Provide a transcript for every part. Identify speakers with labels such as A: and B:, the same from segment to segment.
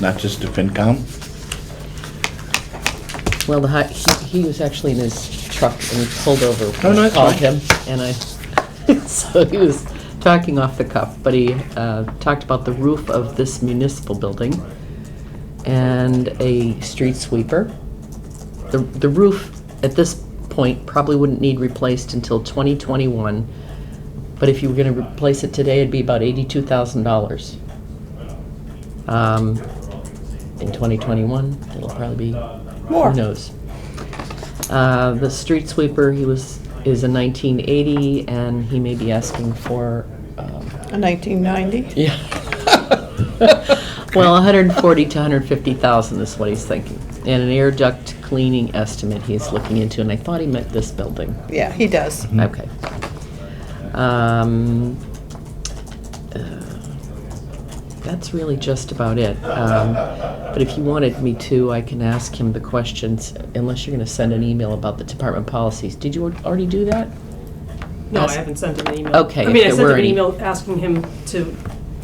A: not just to FinCom?
B: Well, the, hi- he, he was actually in his truck and he pulled over when
A: no,
B: I
A: it's
B: called
A: fine.
B: him. And I, so he was talking off the cuff, but he, uh, talked about the roof of this municipal building and a street sweeper. The, the roof at this point probably wouldn't need replaced until twenty twenty-one. But if you were gonna replace it today, it'd be about eighty-two thousand dollars. Um, in twenty twenty-one, it'll probably be who knows? Uh, The street sweeper, he was, is a 1980, and he may be asking for, um,
C: A 1990?
B: yeah. Well, 140 to 150,000 is what he's thinking. And an air duct cleaning estimate he's looking into, and I thought he meant this building.
C: Yeah, he does.
B: Okay. Um, uh, That's really just about it. Um, But if you wanted me to, I can ask him the questions, unless you're going to send an email about the department policies. Did you already do that?
D: No, I
B: Ask-
D: haven't sent him an email.
B: Okay,
D: I
B: if
D: mean, I
B: there
D: sent
B: were
D: him an
B: any-
D: email asking him to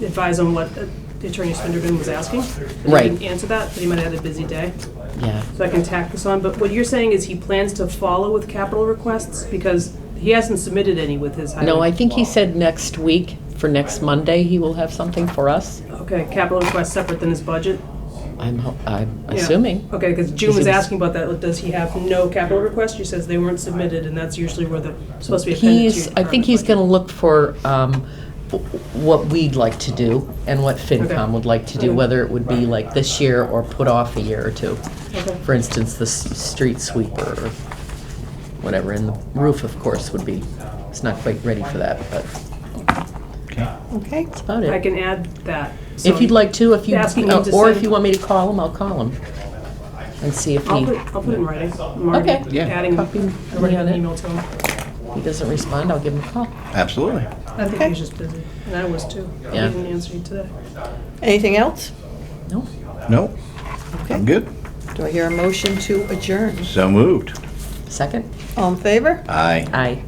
D: advise on what uh, Attorney Spenderbin was asking. but
B: Right.
D: He didn't answer that, but he might have had a busy day,
B: Yeah.
D: so I can tack this on. But what you're saying is he plans to follow with capital requests because he hasn't submitted any with his highway.
B: No, I think he said next week, for next Monday, he will have something for us.
D: Okay, capital requests separate than his budget?
B: I'm, ho- I'm
D: Yeah.
B: assuming.
D: Okay, because June
B: Because
D: was
B: it was-
D: asking about that, does he have no capital requests? She says they weren't submitted, and that's usually where the, supposed to be appended to
B: He's,
D: your
B: I think he's going
D: department
B: to look for um, w- what we'd like to do and what FinCom
D: Okay.
B: would like to do,
D: Okay.
B: whether it would be like this year or put off a year or two.
D: budget. Okay.
B: For instance, the s- street sweeper or whatever, and the roof, of course, would be, it's not quite ready for that, but that's
C: Okay.
B: about
D: I
B: it.
D: can add that. so-
B: If you'd like to, if you,
D: Asking him to
B: or if
D: send-
B: you want me to call him, I'll call him and see if
D: I'll
B: he,
D: put, I'll put it in writing. I'm already
B: Okay.
A: Yeah.
D: Adding,
B: Copy me
D: I already
B: on
D: had an
B: it.
D: email to him.
B: he doesn't respond, I'll give him a call.
A: Absolutely.
D: I think he was just busy, and I was too. He
B: Yeah.
D: didn't answer you today.
C: Anything else?
B: No?
A: No, I'm
C: Okay.
A: good.
C: Do I hear a motion to adjourn?
A: So moved.
B: Second?
C: All in favor?
A: Aye.
B: Aye.